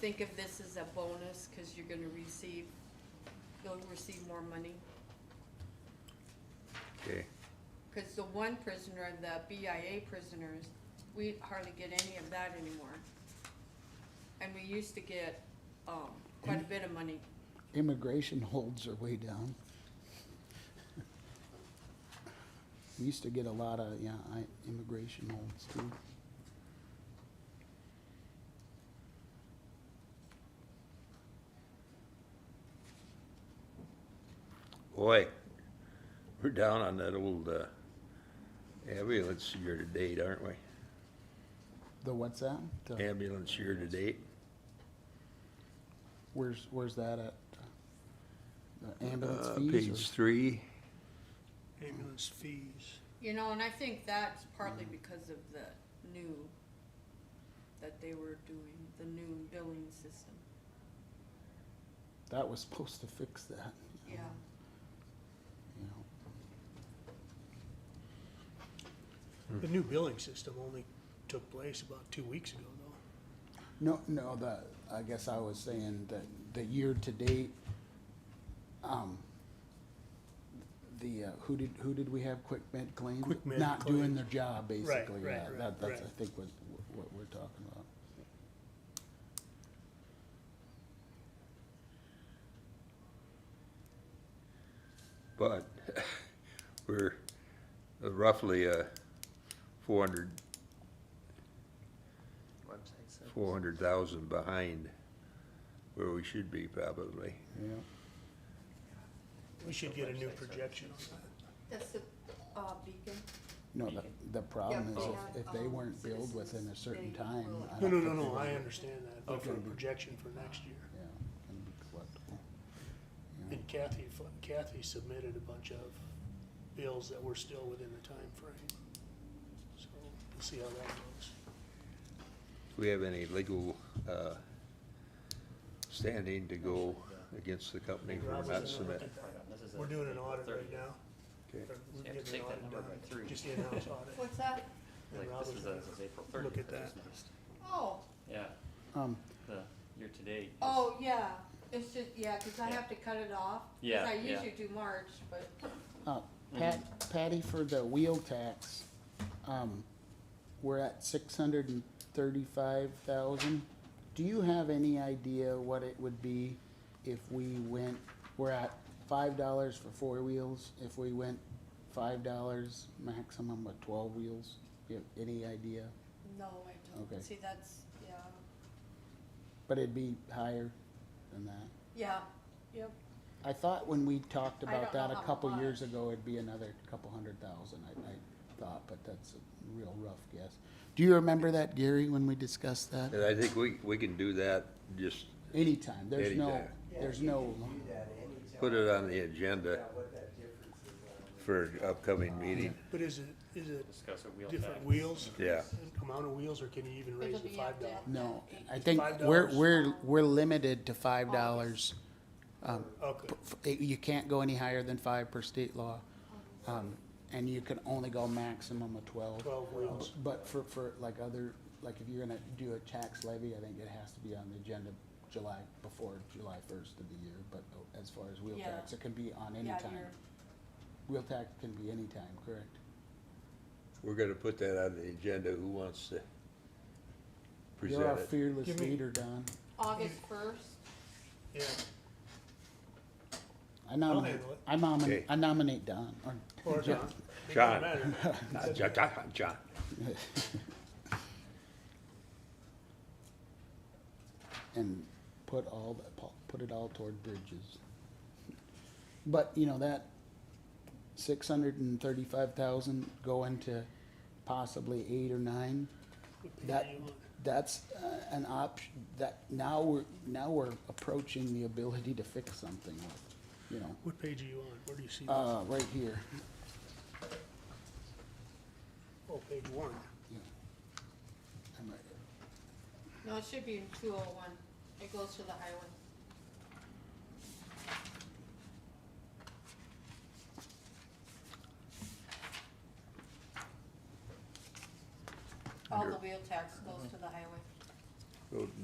think of this as a bonus, cause you're gonna receive, you'll receive more money. Okay, Cause the one prisoner, the BIA prisoners, we hardly get any of that anymore. And we used to get, um, quite a bit of money. Immigration holds are way down. We used to get a lot of, yeah, I, immigration holds too. boy, we're down on that old, uh, ambulance year to date, aren't we? The what's that? The- Ambulance year to date, Where's, where's that at? The ambulance uh, page fees or? three, ambulance fees. You know, and I think that's partly because of the new, that they were doing, the new billing system, That was supposed to fix that, yeah. you know. The new billing system only took place about two weeks ago, though. No, no, the, I guess I was saying that the year-to-date, um, the, uh, who did, who did we have quit med claim? Quick med Not doing claim. their job, basically, right, yeah, right, that, that's, I right. think, what, what we're talking about. but we're roughly, uh, four hundred, Website says. four hundred thousand behind where we should be probably. Yeah, We should get a new projection on that. That's the, uh, beacon? no, the, the problem Yeah, is but- if, if they um, weren't billed within a citizens, certain they time. will- I don't No, no, think no, they no, would- I understand that, but for a projection for next year. Yeah, it'd be collectible. Yeah. And Kathy, fu- Kathy submitted a bunch of bills that were still within the time frame. So we'll see how that goes. Do we have any legal, uh, standing to go against the company And for Rob was not in on submitting? This is a- We're doing an audit right now. Okay. Or we're So you have getting to take an that audit number done. by three. Just the in-house audit. What's that? And Like, Rob this was is, gonna a- this is April look thirtieth. at that. Oh, Yeah, Um, the year to date. is- oh, yeah, it's just, yeah, cause I Yeah. have to cut it off, cause Yeah, I yeah. usually do March, but Uh, Pat, Patty, for the wheel tax, um, we're at six hundred and thirty-five thousand. Do you have any idea what it would be if we went, we're at five dollars for four wheels, if we went five dollars maximum with twelve wheels? You have any idea? no, I don't, Okay. see, that's, yeah, But it'd be higher than that. yeah, yep. I thought when we talked I about don't know that a how couple years much. ago, it'd be another couple hundred thousand, I, I thought, but that's a real rough guess. Do you remember that, Gary, when we discussed that? And I think we, we can do that, just Anytime, there's no, Anytime. there's no, put it on the agenda what that difference is on the- for upcoming meeting. But is it, is it Discuss a wheel different tax. wheels? Yeah. Amount of wheels, or can you even raise It'll the be up five to- dollars? no, I It's think $5? we're, we're, we're limited to five dollars. Um, Okay, f- you can't go any higher than five per state law. Um, and you can only go maximum of twelve. twelve wheels. But for, for like other, like if you're gonna do a tax levy, I think it has to be on the agenda July, before July first of the year, but as far as wheel Yeah. tax, it can be on any Yeah, time. you're- Wheel tax can be any time, correct? We're gonna put that on the agenda, who wants to You're our present it? fearless Give me- leader, Don. August first, Yeah, I nominate, handle it. I nominate, Okay. I nominate Don, or, or not. It John. doesn't matter. Uh, John, John, John, and put all, the- pu- put it all toward bridges. But, you know, that six hundred and thirty-five thousand going to possibly eight or nine, that, that's uh, an option, that, now we're, now we're approaching the ability to fix something with, you know, What page are you on? Where do you see that? uh, right here. Oh, page one. Yeah. I'm right here. no, it should be in two oh one, it goes to the highway. All the Under- wheel tax goes to the highway. Go